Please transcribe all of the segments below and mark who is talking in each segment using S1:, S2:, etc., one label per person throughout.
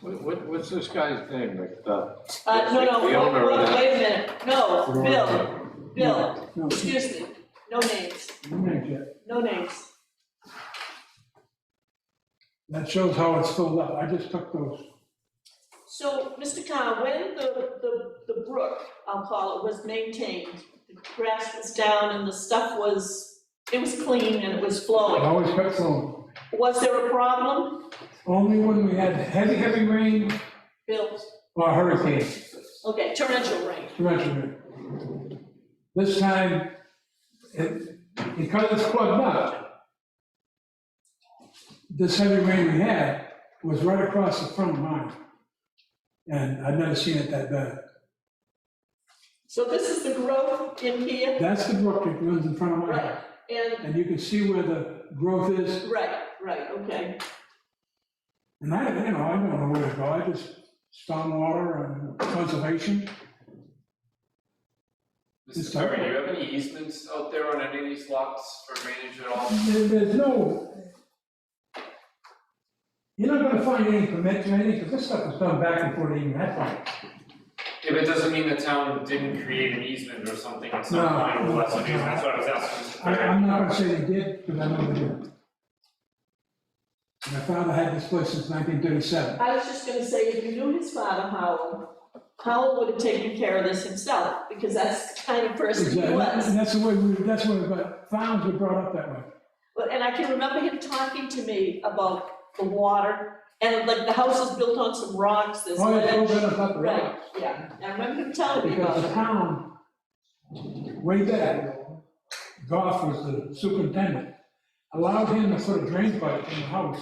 S1: What, what's this guy's name, like the?
S2: Uh, no, no,
S1: The owner
S2: wait,
S1: of
S2: wait,
S1: that.
S2: wait a minute, no, Bill, Bill,
S3: No,
S2: excuse me, no names,
S3: you make it.
S2: no names.
S3: That shows how it's filled up. I just took those.
S2: So, Mr. Khan, when the, the, the brook, I'll call it, was maintained, the grass was down and the stuff was, it was clean and it was
S3: I
S2: flowing,
S3: always kept them.
S2: was there a problem,
S3: Only when we had heavy, heavy rain
S2: Bill?
S3: or hurricane,
S2: Okay, torrential rain,
S3: torrential rain. This time, it, because it's plugged up, this heavy rain we had was right across the front of mine. And I've never seen it that bad.
S2: so this is the growth in here,
S3: That's the brook that runs in front of my
S2: right,
S3: house.
S2: and,
S3: And you can see where the growth is
S2: right, right, okay,
S3: And I, you know, I don't know where to go, I just stormwater and conservation,
S4: Mr. Perry, do you have any easements out there on any of these lots for drainage at all?
S3: there, there's no. You're not gonna find any permits or anything, because this stuff was done back before they even had one.
S4: If it doesn't mean the town didn't create an easement or something, it's
S3: No.
S4: not mine, well, that's what it is, that's what I was asking. Mr.
S3: I,
S4: Perry.
S3: I'm not gonna say they did, because I know they did. My father had this place since nineteen thirty-seven.
S2: I was just gonna say, if you knew his father, Howell, Howell would have taken care of this himself, because that's the kind of person he was.
S3: And that's the way, we. that's the way, but farms were brought up that way.
S2: But, and I can remember him talking to me about the water, and like the house is built on some rocks, there's
S3: Oh, yeah,
S2: ledge.
S3: they were up the road.
S2: Right, yeah, I remember him telling me
S3: Because
S2: about
S3: the
S2: it.
S3: town, way back, Goff was the superintendent, allowed him to put a drain pipe in the house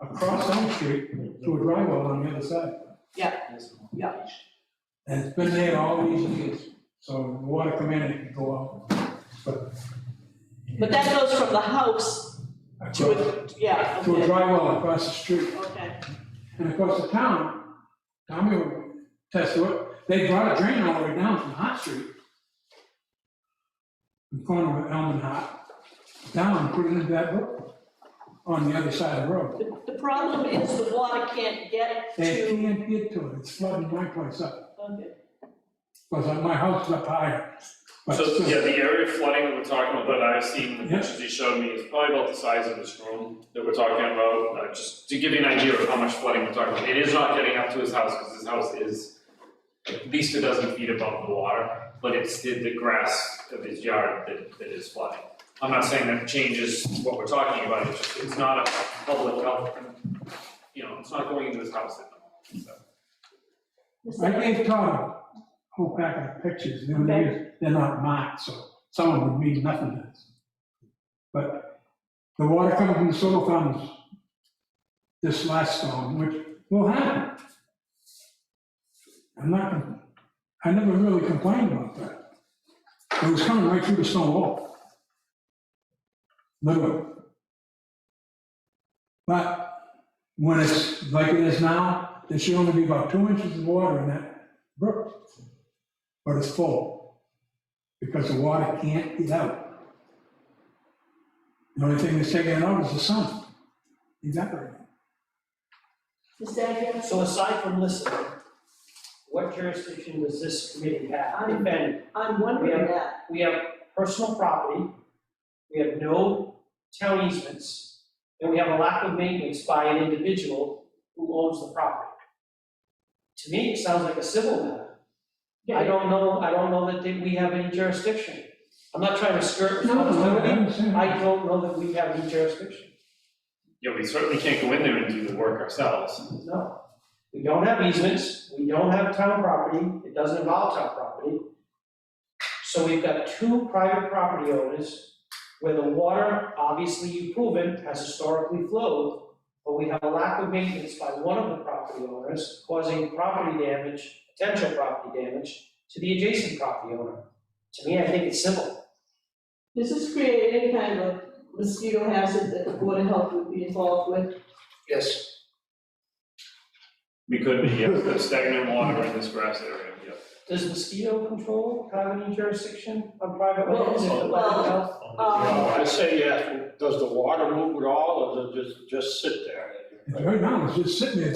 S3: across Elm Street to a dry well on the other side.
S2: Yeah.
S3: And it's been there all these years, so the water come in and it can go out.
S2: But that goes from the house to,
S3: Across-
S2: a yeah,
S3: To a
S2: okay,
S3: dry well across the street.
S2: okay,
S3: And of course, the town, Tommy will test to it, they brought a drain all the way down from Hot Street. In the corner of Elm and Hot, down, and put it into that brook, on the other side of the road.
S2: the, the problem is the water can't get
S3: They
S2: to,
S3: can't get to it, it's flooding my place up,
S2: okay,
S3: because my house is up higher. But
S5: So, yeah,
S3: still,
S5: the area of flooding that we're talking about, that I've seen, the
S3: Yeah.
S5: pictures he showed me, is probably about the size of this room that we're talking about, uh, just to give you an idea of how much flooding we're talking about. It is not getting up to his house, because his house is at least a dozen feet above the water, but it's the, the grass of his yard that, that is flooding. I'm not saying that changes what we're talking about, it's just, it's not a public health, you know, it's not going into his house at the moment, so.
S3: I
S2: Mr.
S3: gave Tom a whole pack of pictures, and
S2: Okay.
S3: they're, they're not marked, so some of them would mean nothing to us. But the water coming from the solar farms this last storm, which will happen. I'm not, I never really complained about that. It was coming right through the stone wall. Literally. But when it's like it is now, there should only be about two inches of water in that brook. But it's full, because the water can't get out. The only thing that's taking it out is the sun evaporating.
S2: Agia,
S6: So aside from listening, what jurisdiction does this committee have? If any?
S2: I'm wondering
S6: Yeah.
S2: that.
S6: we have personal property, we have no town easements, and we have a lack of maintenance by an individual who owns the property. To me, it sounds like a civil matter. I don't know, I don't know that they- we have any jurisdiction. I'm not trying to skirt responsibility, I don't know that we have any jurisdiction.
S5: Yeah, we certainly can't go in there and do the work ourselves.
S6: No. We don't have easements, we don't have town property, it doesn't involve town property. So we've got two private property owners where the water, obviously you've proven, has historically flowed, but we have a lack of maintenance by one of the property owners causing property damage, potential property damage to the adjacent property owner. To me, I think it's simple.
S2: Does this create any kind of mosquito hazard that the Board of Health would be involved with?
S6: Yes.
S5: We could, be, yes, the stagnant water in this grass area, yeah.
S6: Does mosquito control have any jurisdiction on private lands? if the
S2: Well,
S6: public health-
S2: Um,
S1: I say yes, does the water move at all, or does it just, just sit there?
S3: Right now, it's just sitting there,